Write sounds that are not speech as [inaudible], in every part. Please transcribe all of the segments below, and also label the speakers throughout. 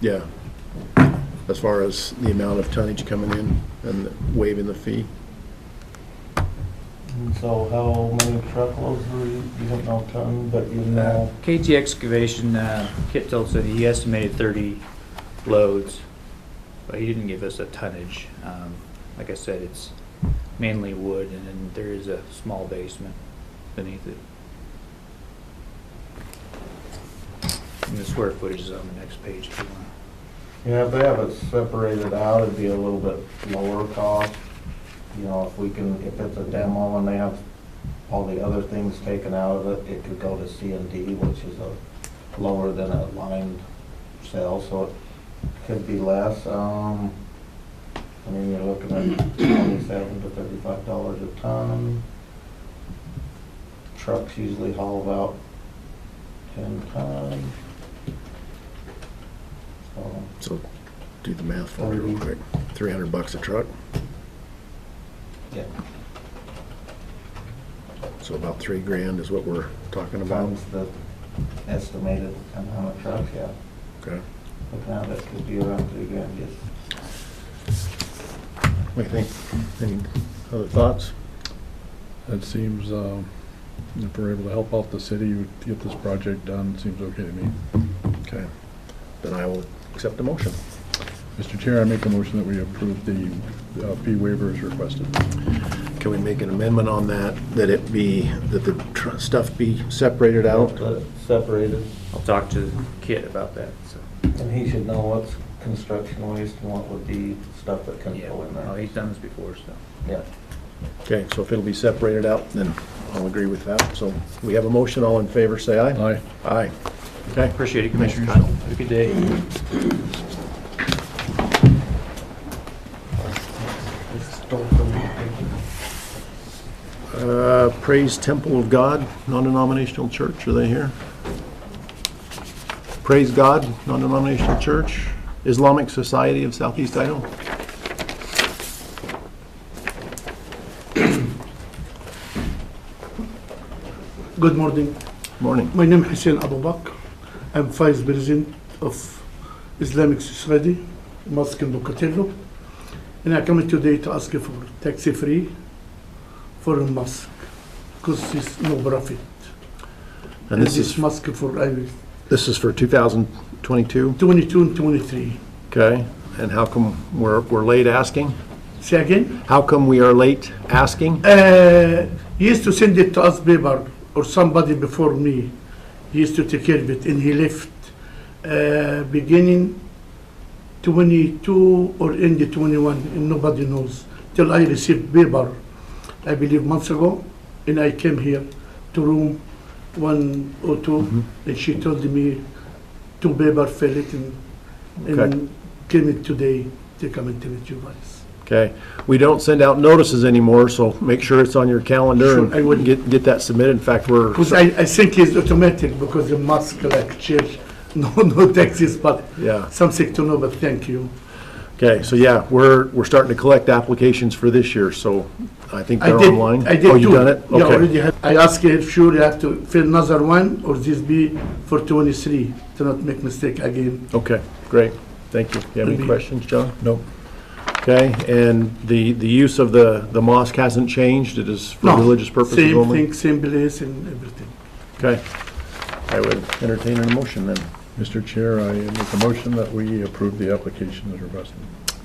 Speaker 1: Yeah. As far as the amount of tonnage coming in and waiving the fee.
Speaker 2: And So how many truckloads were you, you don't know ton, but you
Speaker 3: Uh,
Speaker 2: know,
Speaker 3: KT Excavation, uh, Kit told us that he estimated 30 loads, but he didn't give us a tonnage. Um, Like I said, it's mainly wood, and then there is a small basement beneath it. And the square footage is on the next page if you want.
Speaker 2: yeah, if they have it separated out, it'd be a little bit lower cost. You know, if we can, if it's a demo and they have all the other things taken out of it, it could go to C and D, which is a lower than a lined sale, so it could be less. Um, I mean, you're looking at twenty-seven to thirty-five dollars a ton. Trucks usually haul about ten tons. So,
Speaker 1: So do the math for me real quick. Three hundred bucks a truck,
Speaker 2: yeah,
Speaker 1: so about three grand is what we're talking about.
Speaker 2: times the estimated amount of trucks, yeah.
Speaker 1: Okay.
Speaker 2: Looking at it, could be around three grand, yes.
Speaker 1: What do you think? Any other thoughts?
Speaker 4: That seems, um, if we're able to help out the city, to get this project done, seems okay to me.
Speaker 1: Okay. Then I will accept the motion.
Speaker 4: Mr. Chair, I make a motion that we approve the uh, fee waiver as requested.
Speaker 1: Can we make an amendment on that, that it be, that the tr- stuff be separated out?
Speaker 2: But Separated,
Speaker 3: I'll talk to Kit about that, so.
Speaker 2: and he should know what's construction waste and what would be stuff that can
Speaker 3: Yeah,
Speaker 2: go in
Speaker 3: well,
Speaker 2: there.
Speaker 3: he's done this before, so.
Speaker 2: Yeah.
Speaker 1: Okay, so if it'll be separated out, then I'll agree with that. So we have a motion, all in favor, say aye.
Speaker 4: Aye.
Speaker 1: Aye. Okay.
Speaker 3: Appreciate it, Commissioners.
Speaker 1: Kyle.
Speaker 3: Have a good day.
Speaker 1: Uh, Praise Temple of God, non-denominational church, are they here? Praise God, non-denominational church, Islamic Society of Southeast Idaho.
Speaker 5: Good morning.
Speaker 1: Morning.
Speaker 5: My name is Hussein Abu Bakr. I'm vice president of Islamic Society, Mosque in Pocatello. And I come today to ask you for tax-free for a mosque, because it's no profit.
Speaker 1: And this is,
Speaker 5: mosque for I-
Speaker 1: this is for 2022,
Speaker 5: 22 and 23.
Speaker 1: okay? And how come we're, we're late asking?
Speaker 5: Say again?
Speaker 1: How come we are late asking?
Speaker 5: Uh, He used to send it to us paper, or somebody before me. He used to take care of it, and he left uh, beginning 22 or end of 21, and nobody knows. Till I received paper, I believe months ago, and I came here to room 102, and she told me two paper fell it, and-
Speaker 1: Okay.
Speaker 5: and came it today to come and tell it to you guys.
Speaker 1: Okay, we don't send out notices anymore, so make sure it's on your calendar
Speaker 5: Sure, I
Speaker 1: and
Speaker 5: would.
Speaker 1: get, get that submitted. In fact, we're,
Speaker 5: Because I, I think it's automatic because the mosque like church, [laughs] no no taxes, but
Speaker 1: yeah.
Speaker 5: something to know. But thank you.
Speaker 1: Okay, so yeah, we're, we're starting to collect applications for this year, so I think
Speaker 5: I
Speaker 1: they're
Speaker 5: did.
Speaker 1: online.
Speaker 5: I did
Speaker 1: Oh, you
Speaker 5: two.
Speaker 1: done it?
Speaker 5: Yeah,
Speaker 1: Okay,
Speaker 5: already had. I asked if sure you have to fill another one or this be for 23 to not make mistake again.
Speaker 1: okay, great, thank you. You have any
Speaker 5: Maybe.
Speaker 1: questions, John?
Speaker 4: Nope.
Speaker 1: Okay, and the, the use of the, the mosque hasn't changed, it is for
Speaker 5: No,
Speaker 1: religious purposes
Speaker 5: same
Speaker 1: only?
Speaker 5: thing, same place, and everything.
Speaker 1: Okay, I would entertain a motion then.
Speaker 4: Mr. Chair, I make a motion that we approve the application as requested.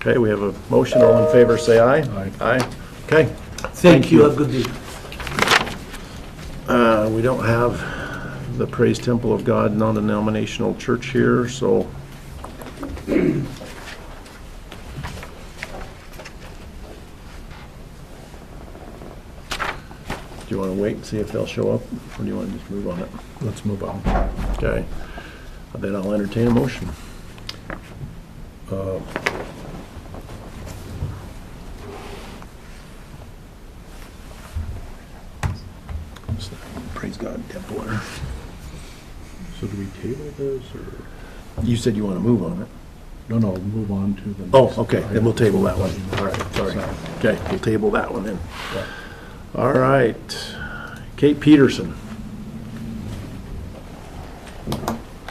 Speaker 1: Okay, we have a motion, all in favor, say aye.
Speaker 4: Aye.
Speaker 1: Aye, okay.
Speaker 5: Thank, you. Have a good day.
Speaker 1: Uh, We don't have the Praise Temple of God non-denominational church here, so. Do you want to wait and see if they'll show up, or do you want to just move on it?
Speaker 4: Let's move on.
Speaker 1: Okay. Then I'll entertain a motion. Praise God, Temple.
Speaker 4: So do we table this, or?
Speaker 1: You said you want to move on it?
Speaker 4: No, no, move on to the.
Speaker 1: Oh,
Speaker 4: next
Speaker 1: okay, then
Speaker 4: item.
Speaker 1: we'll table that one. All right, sorry. Okay, we'll table that one then. All right. Kate Peterson.